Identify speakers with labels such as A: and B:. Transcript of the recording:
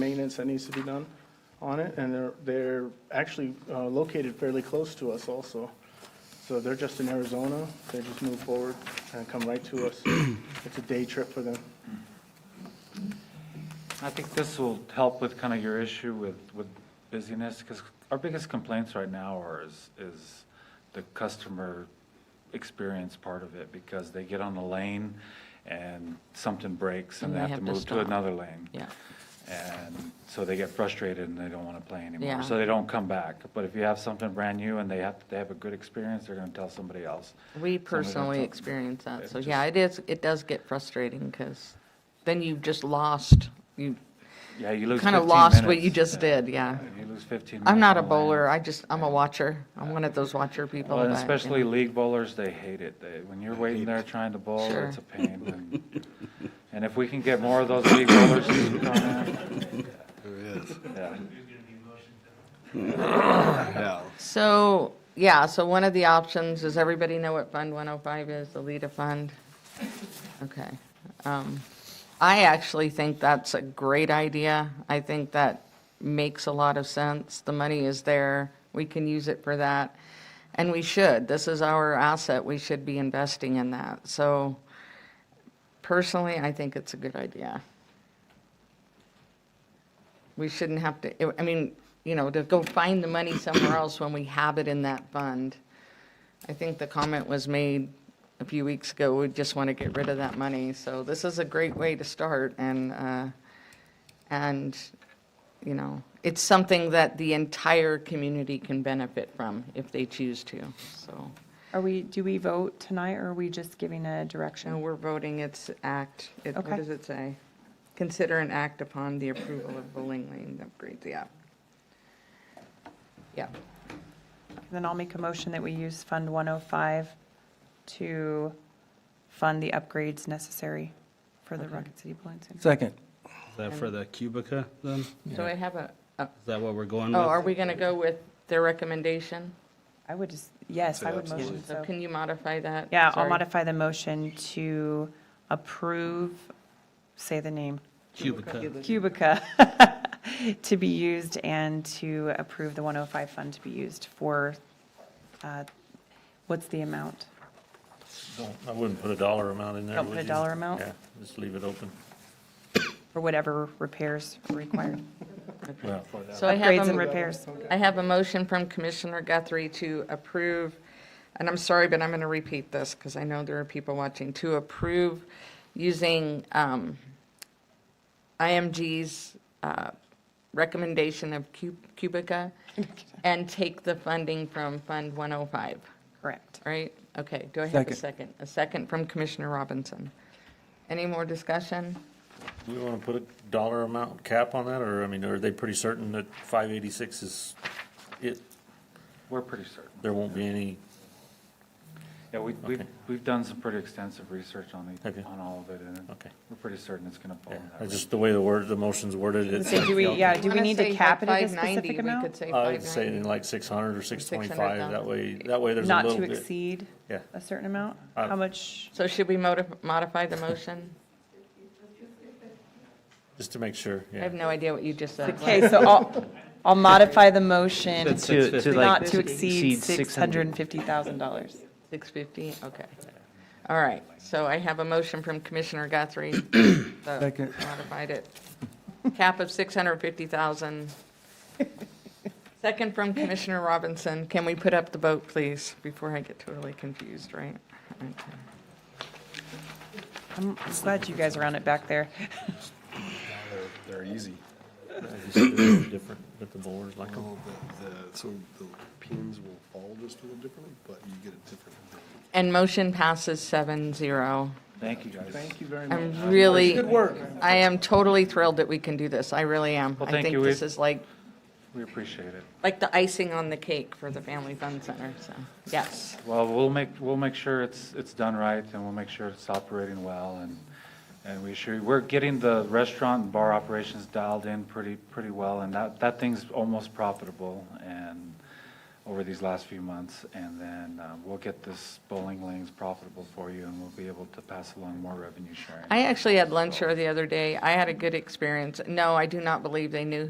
A: maintenance that needs to be done on it, and they're, they're actually uh, located fairly close to us also. So they're just in Arizona, they just move forward and come right to us. It's a day trip for them.
B: I think this will help with kind of your issue with, with busyness, because our biggest complaints right now are is, is the customer experience part of it, because they get on a lane and something breaks and they have to move to
C: stop.
B: another lane.
C: Yeah,
B: And so they get frustrated and they don't want to play
C: Yeah.
B: anymore, so they don't come back. But if you have something brand new and they have, they have a good experience, they're going to tell somebody else.
C: we
B: Somebody that's
C: personally
B: a-
C: experience that,
B: it
C: so yeah, it is, it does get frustrating, because then you've just lost, you
B: Yeah, you lose 15
C: kind of
B: minutes.
C: lost what you just
B: Yeah.
C: did, yeah.
B: You lose 15 minutes.
C: I'm not a
B: on the lane.
C: bowler, I just, I'm a watcher, I'm one of those watcher people.
B: Well, and
C: that, you know.
B: especially league bowlers, they hate it. They, when you're waiting there trying to bowl,
C: Sure.
B: it's a pain. And- And if we can get more of those league bowlers to come in,
D: There is.
B: yeah.
D: Yeah.
C: So, yeah, so one of the options, does everybody know what Fund 105 is, the LEDA fund? Okay. Um, I actually think that's a great idea. I think that makes a lot of sense. The money is there, we can use it for that, and we should. This is our asset, we should be investing in that. So personally, I think it's a good idea we shouldn't have to, I mean, you know, to go find the money somewhere else when we have it in that fund. I think the comment was made a few weeks ago, we just want to get rid of that money. So this is a great way to start and, uh, and, you know, it's something that the entire community can benefit from if they choose to, so.
E: Are we, do we vote tonight, or are we just giving
C: No,
E: a direction?
C: we're voting its act. It- What
E: Okay.
C: does it say? Consider an act upon the approval of bowling lane upgrades, yeah. Yeah.
E: Then I'll make a motion that we use Fund 105 to fund the upgrades necessary for the Rocket City Bowling Center.
F: Second.
G: Is that for the Cubica then? Is
C: So I have a, oh,
G: that what we're going
C: oh, are
G: with?
C: we going to go with their recommendation?
E: I would just, yes, I would motion
C: So
E: so.
C: can you modify that?
E: Yeah, I'll
C: Sorry.
E: modify the motion to approve, say the name,
G: Cubica.
E: Cubica, to be used and to approve the 105 fund to be used for, uh, what's the amount?
H: Don't, I wouldn't put a dollar amount in there,
E: Don't
H: would
E: put a
H: you?
E: dollar amount?
H: Yeah, just leave it open.
E: for whatever repairs are required,
C: So I have
E: upgrades
C: a
E: and
C: m-
E: repairs.
C: I have a motion from Commissioner Guthrie to approve, and I'm sorry, but I'm going to repeat this because I know there are people watching, to approve using um, IMG's uh, recommendation of Cu- Cubica and take the funding from Fund 105,
E: Correct.
C: right? Okay, do I have
F: Second.
C: a second? A second from Commissioner Robinson. Any more discussion?
H: Do we want to put a dollar amount cap on that, or, I mean, are they pretty certain that five eighty-six is it?
B: We're pretty certain.
H: There won't be any,
B: Yeah, we, we've,
H: Okay.
B: we've done some pretty extensive research on
H: Okay.
B: the, on all of it, and
H: Okay.
B: we're pretty certain it's going to fall
H: yeah,
B: in that
H: it's
B: range.
H: just the way the word, the motion's worded, it's,
E: So do we, yeah, Uh, do we
C: Wanna
E: need to
C: say
E: cap it
C: like
E: at a
C: 590,
E: specific amount?
C: We could say
H: I would say
C: 590.
H: in like six hundred or six twenty-five,
C: 600,000.
H: that way, that way there's a
E: Not
H: little
E: to
H: bit.
E: exceed
H: Yeah.
E: a certain amount?
H: Uh,
E: How much?
C: So should we modif- modify the motion?
H: Just to make sure,
C: I have
H: yeah.
C: no idea what you just said.
E: Okay, so I'll, I'll modify the motion
G: That's To- to 650.
E: not to exceed
F: exceed
E: $650,000.
C: 650, okay. All right, so I have a motion from Commissioner Guthrie. that
F: Second.
C: Modified it. Cap of 650,000. Second from Commissioner Robinson. Can we put up the vote, please, before I get totally confused, right? Okay.
E: I'm glad you guys are on it back there.
D: They're easy.
H: Just a little Different with the board, like,
D: Oh, the- the- So the pins will fall just a little differently, but you get a different.
C: And motion passes 7-0.
B: Thank you, guys.
A: Thank you very much.
C: I'm really. Good work. I am totally thrilled that we can do this. I really am.
B: Well,
C: I
B: thank
C: think
B: you.
C: this
B: We've-
C: is like
B: We appreciate it.
C: like the icing on the cake for the Family Fun Center, so, yes.
B: Well, we'll make, we'll make sure it's, it's done right, and we'll make sure it's operating well, and, and we sure, we're getting the restaurant and bar operations dialed in pretty, pretty well, and that, that thing's almost profitable, and over these last few months, and then uh, we'll get this bowling lanes profitable for you, and we'll be able to pass along more revenue sharing.
C: I actually had lunch here the other day. I had a good experience. No, I do not believe they knew